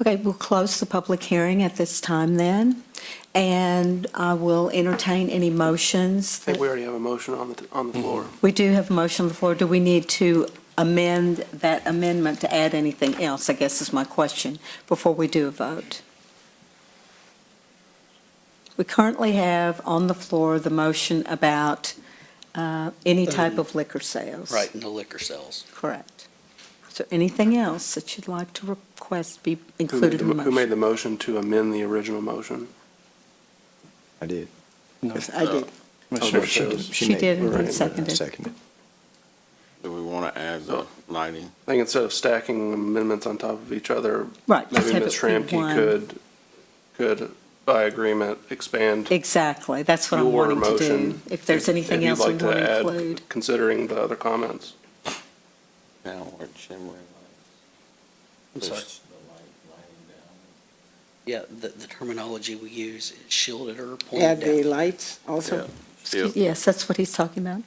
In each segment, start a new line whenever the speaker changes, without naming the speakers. Okay, we'll close the public hearing at this time then, and I will entertain any motions.
I think
that-
we already have a motion on the, on the floor.
We do have a motion on the floor. Do we need to amend that amendment to add anything else, I guess is my question, before we do a vote? We currently have on the floor the motion about uh, any type of liquor sales.
Right, no liquor sales.
Correct. So anything else that you'd like to request be included in the
Who made
motion?
the motion to amend the original motion?
I did.
I did.
Commissioner Shows.
She
made-
did, and
right,
seconded.
Seconded.
Do we want to add the lighting?
I think instead of stacking amendments on top of each other,
Right. just
maybe
have
Ms.
it be
Shramky
one.
could, could, by agreement, expand
Exactly, that's what I'm
your
wanting to do.
motion.
If there's anything
you'd
else we
like
want
to
to
add,
include.
Considering the other comments.
Down or shimmering?
I'm sorry.
Push the light- lighting down.
Yeah, the, the terminology we use, is shielded or
Add the
pointed down.
lights also.
Shield-
Yes, that's what he's talking about.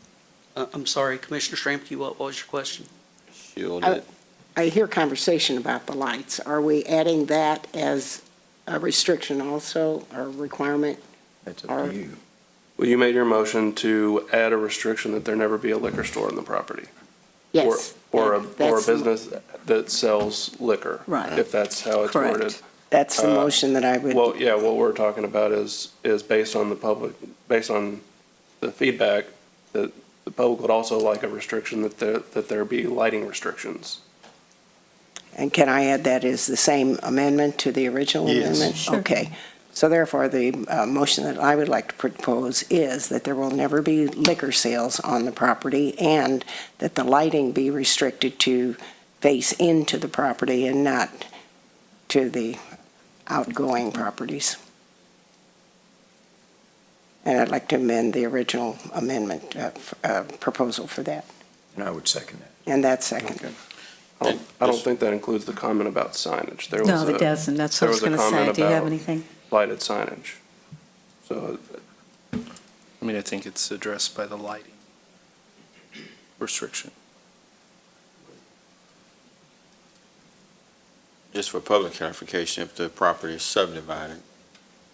Uh, I'm sorry, Commissioner Stramke, what what was your question?
Shield
I-
it.
I hear conversation about the lights. Are we adding that as a restriction also, or requirement?
That's
Or-
up to you.
Well, you made your motion to add a restriction that there never be a liquor store on the property. or-
Yes.
Or a, or a
that- that's the-
business that sells liquor.
Right.
If that's how it's
Correct.
worded.
That's the
uh,
motion that I would.
Well, yeah, what we're talking about is, is based on the public, based on the feedback, that the public would also like a restriction that there, that there be lighting restrictions.
And can I add that is the same amendment to the original
Yes.
amendment?
Sure.
Okay. So therefore, the uh, motion that I would like to propose is that there will never be liquor sales on the property and that the lighting be restricted to face into the property and not to the outgoing properties. And I'd like to amend the original amendment uh, f- uh, proposal for that.
And I would second that.
And that's second.
I don't, I don't think that includes the comment about signage. There
No,
was
it
a
doesn't, that's what I
there
was
was a
going to say.
comment
Do you have
about-
anything?
lighted signage. So
I mean, I think it's addressed by the lighting restriction.
Just for public clarification, if the property is subdivided,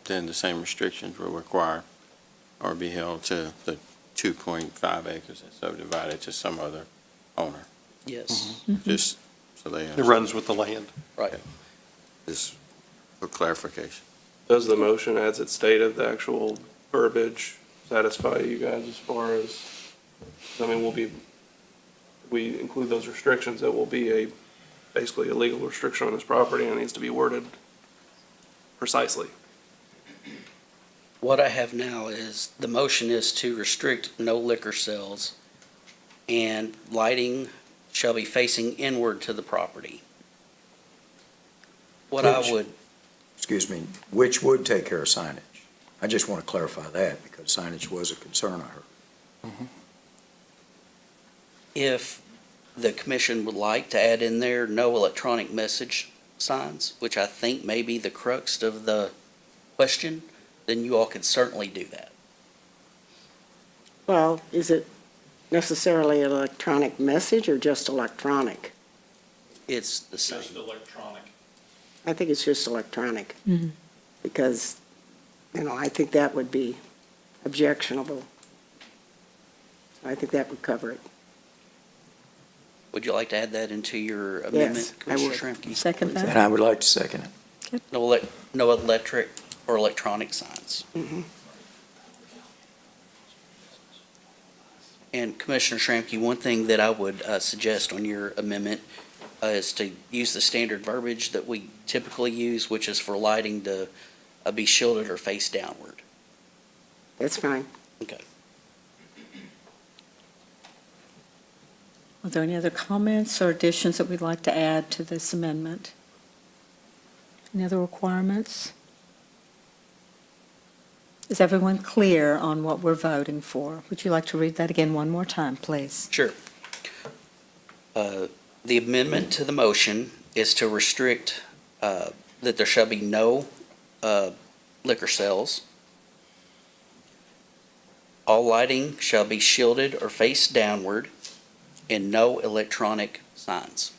then the same restrictions will require or be held to the 2.5 acres that's subdivided to some other owner,
Yes.
just so they,
It
understand.
runs with the land.
just for clarification.
does the motion, as it stated, the actual verbiage satisfy you guys as far as, I mean, we'll be, we include those restrictions, it will be a, basically a legal restriction on this property and it needs to be worded precisely.
What I have now is, the motion is to restrict no liquor sales, and lighting shall be facing inward to the property. What I
Which-
would,
Excuse me, which would take care of signage? I just want to clarify that because signage was a concern I heard.
if the commission would like to add in there, no electronic message signs, which I think may be the crux of the question, then you all could certainly do that.
Well, is it necessarily an electronic message or just electronic?
It's the same.
I think it's just electronic.
Mhm.
Because, you know, I think that would be objectionable. I think that would cover it.
Would you like to add that into your amendment,
I would.
Commissioner Shramky?
Second
please?
that.
And I would like to second it.
No elec, no electric or electronic signs. And Commissioner Shramky, one thing that I would uh, suggest on your amendment uh, is to use the standard verbiage that we typically use, which is for lighting to uh, be shielded or face downward.
That's fine.
Are there any other comments or additions that we'd like to add to this amendment? Any other requirements? Is everyone clear on what we're voting for? Would you like to read that again one more time, please?
Sure. Uh, The amendment to the motion is to restrict uh, that there shall be no uh, liquor sales. All lighting shall be shielded or face downward, and no electronic signs.